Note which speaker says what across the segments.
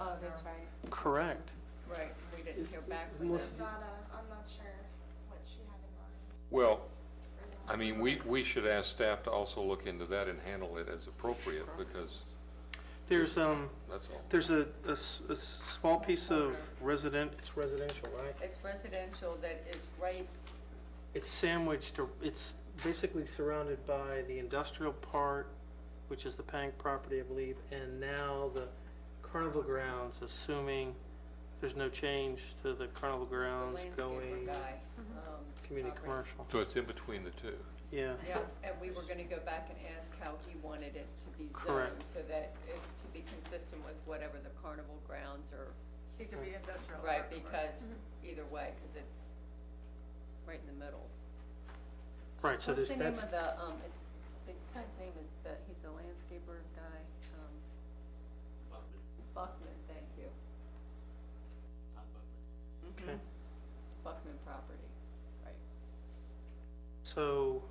Speaker 1: Oh, That's right.
Speaker 2: Correct.
Speaker 1: Um, Right, we didn't hear back from
Speaker 2: Unless-
Speaker 1: them.
Speaker 3: Not a, I'm not sure what she had in mind.
Speaker 4: Well, I mean, we, we should ask staff to also look into that and handle it as appropriate, because
Speaker 2: There's, um,
Speaker 4: that's all.
Speaker 2: there's a, a s- a s- small piece of resident, it's residential, right?
Speaker 1: It's residential that is right,
Speaker 2: It's sandwiched, or- it's basically surrounded by the industrial part, which is the Pank property, I believe, and now the carnival grounds, assuming there's no change to the carnival
Speaker 1: the
Speaker 2: grounds
Speaker 1: landscaper
Speaker 2: going
Speaker 1: guy. um,
Speaker 2: community
Speaker 1: property.
Speaker 2: commercial.
Speaker 4: So it's in between the two.
Speaker 2: Yeah,
Speaker 1: Yeah, and we were gonna go back and ask how he wanted it to be
Speaker 2: Correct.
Speaker 1: zoned, so that it, to be consistent with whatever the carnival grounds are,
Speaker 5: It could be industrial. or
Speaker 1: right,
Speaker 5: commercial.
Speaker 1: because either way, cause it's right in the middle.
Speaker 2: right, so there's, that's,
Speaker 1: What's the name of the, um, it's, the guy's name is the, he's the landscaper guy, um. Buckman. Buckman, thank you. Todd
Speaker 2: okay.
Speaker 1: Buckman property, right,
Speaker 2: So,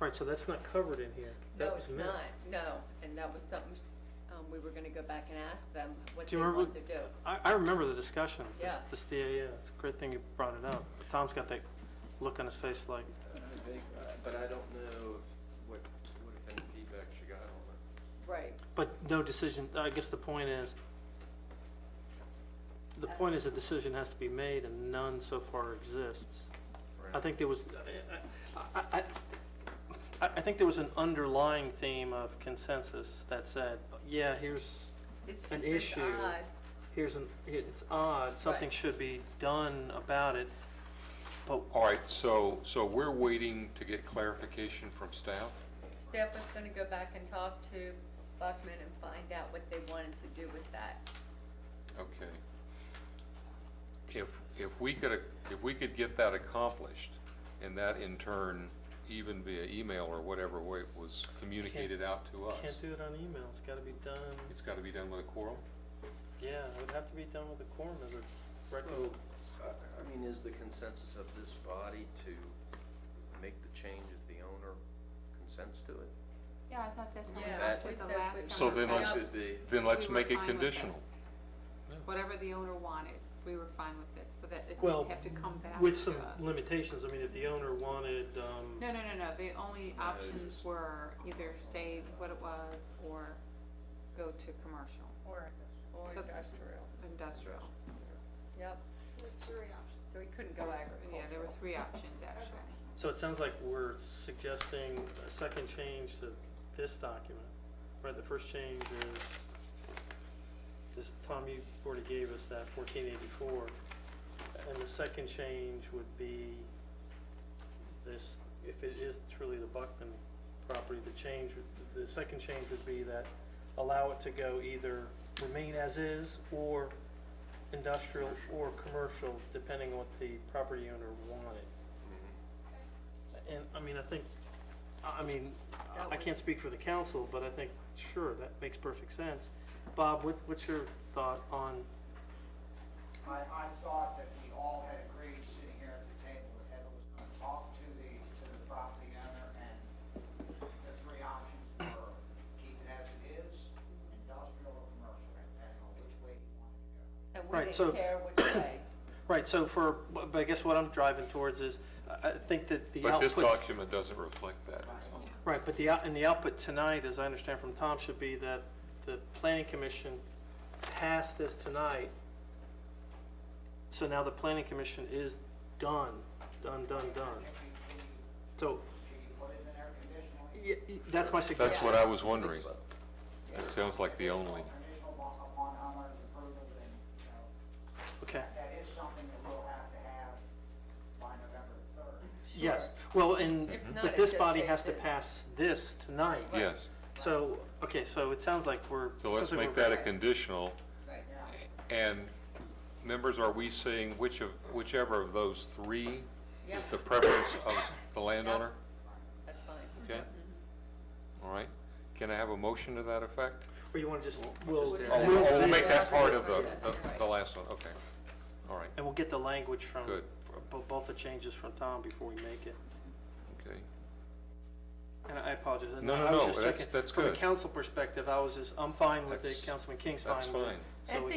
Speaker 1: right.
Speaker 2: right, so that's not covered in here.
Speaker 1: No,
Speaker 2: That was
Speaker 1: it's
Speaker 2: missed.
Speaker 1: not, no, and that was something, um, we were gonna go back and ask them what
Speaker 2: Do
Speaker 1: they
Speaker 2: you remember
Speaker 1: want to do.
Speaker 2: I, I remember the discussion. This-
Speaker 1: Yeah.
Speaker 2: This, yeah, yeah, it's a great thing you brought it up. Tom's got that look on his face like,
Speaker 6: Uh, big, uh, But I don't know if- what, what if any feedback she got on it.
Speaker 1: Right,
Speaker 2: but no decision, I guess the point is, the point is a decision has to be made and none so far exists. I think there was, I, I, I, I think there was an underlying theme of consensus that said, yeah, here's,
Speaker 1: it's
Speaker 2: An
Speaker 1: just it's
Speaker 2: issue.
Speaker 1: odd,
Speaker 2: here's an, it's odd, something
Speaker 1: Right.
Speaker 2: should be done about it. But
Speaker 4: All right, so, so we're waiting to get clarification from staff?
Speaker 1: Steph was gonna go back and talk to Buckman and find out what they wanted to do with that.
Speaker 4: Okay. If, if we could, if we could get that accomplished, and that in turn, even via email or whatever way it was communicated out to us,
Speaker 2: can't do it on email, it's gotta be done.
Speaker 4: it's gotta be done with a quorum?
Speaker 2: Yeah, it would have to be done with a quorum as a record.
Speaker 6: Well, I, I mean, is the consensus of this body to make the change if the owner consents to it?
Speaker 7: Yeah, I thought that's what we
Speaker 1: Yeah,
Speaker 7: left
Speaker 6: that-
Speaker 7: with the
Speaker 1: So
Speaker 7: last
Speaker 1: we-
Speaker 7: time.
Speaker 4: So then
Speaker 6: It
Speaker 4: let's-
Speaker 6: should be.
Speaker 4: Then let's
Speaker 7: We were
Speaker 4: make it
Speaker 7: fine with it.
Speaker 4: conditional.
Speaker 7: Whatever the owner wanted, we were fine with it, so that it
Speaker 2: Well,
Speaker 7: didn't have to come back to us.
Speaker 2: With some limitations, I mean, if the owner wanted, um,
Speaker 7: No, no, no, no, the only
Speaker 6: No,
Speaker 7: options
Speaker 6: just-
Speaker 7: were either stay what it was or go to commercial,
Speaker 5: Or
Speaker 1: Or
Speaker 7: So-
Speaker 1: industrial,
Speaker 7: industrial.
Speaker 1: yep,
Speaker 3: There's three options.
Speaker 1: so we couldn't go
Speaker 7: Yeah, there were
Speaker 1: agricultural.
Speaker 7: three options actually.
Speaker 2: so it sounds like we're suggesting a second change to this document. Right, the first change is, this, Tom, you already gave us that fourteen eighty-four. And the second change would be this, if it is truly the Buckman property, the change, would- the second change would be that allow it to go either remain as is or industrial or commercial, depending on what the property owner wanted. And, I mean, I think, I I mean, I- I
Speaker 1: That
Speaker 2: can't
Speaker 1: was-
Speaker 2: speak for the council, but I think, sure, that makes perfect sense. Bob, what, what's your thought on,
Speaker 8: I, I thought that we all had agreed, sitting here at the table, that Heather was gonna talk to the, to the property owner, and the three options were keep it as it is, industrial or commercial, depending on which way you wanted to go.
Speaker 1: And we
Speaker 2: Right, so-
Speaker 1: didn't care which way,
Speaker 2: right, so for, but I guess what I'm driving towards is, I, I think that the
Speaker 4: But
Speaker 2: output.
Speaker 4: this document doesn't reflect that, so.
Speaker 2: Right, but the, out- and the output tonight, as I understand from Tom, should be that the planning commission passed this tonight. So now the planning commission is done, done, done, done.
Speaker 8: Can you, can you,
Speaker 2: So,
Speaker 8: can you put it in there conditionally?
Speaker 2: y- y- that's my
Speaker 4: That's
Speaker 2: suggestion.
Speaker 4: what I was wondering.
Speaker 6: So,
Speaker 4: It sounds like the only.
Speaker 8: Conditional upon- upon homeowner's approval, and, you know,
Speaker 2: Okay,
Speaker 8: that is something that we'll have to have by November the third.
Speaker 2: yes, well, and,
Speaker 1: If not,
Speaker 2: but
Speaker 1: it
Speaker 2: this
Speaker 1: just
Speaker 2: body
Speaker 1: stays
Speaker 2: has to
Speaker 1: this.
Speaker 2: pass this tonight.
Speaker 4: Yes,
Speaker 2: So, okay, so it sounds like we're.
Speaker 4: so let's
Speaker 2: sounds like
Speaker 4: make
Speaker 2: we're-
Speaker 4: that a conditional.
Speaker 1: right,
Speaker 4: And members, are we saying which of, whichever of those three
Speaker 1: Yeah.
Speaker 4: is the preference of the landowner?
Speaker 1: that's fine.
Speaker 4: Okay? All right. Can I have a motion to that effect?
Speaker 2: Or you wanna just, we'll.
Speaker 1: just-
Speaker 4: Oh,
Speaker 1: we'll-
Speaker 4: we'll
Speaker 1: we'll
Speaker 4: make that
Speaker 1: just-
Speaker 4: part of the,
Speaker 1: Yes.
Speaker 4: the- the last one, okay. All right,
Speaker 2: And we'll get the language from.
Speaker 4: Good.
Speaker 2: from bo- Both the changes from Tom before we make it.
Speaker 4: okay.
Speaker 2: And I apologize.
Speaker 4: No,
Speaker 2: I was
Speaker 4: no, no,
Speaker 2: just
Speaker 4: that's-
Speaker 2: checking-
Speaker 4: that's
Speaker 2: From a
Speaker 4: good.
Speaker 2: council perspective, I was just, I'm fine with it,
Speaker 4: That's-
Speaker 2: Councilman King's fine
Speaker 4: That's
Speaker 2: with it.
Speaker 4: fine.
Speaker 2: So
Speaker 1: I
Speaker 2: we-
Speaker 1: think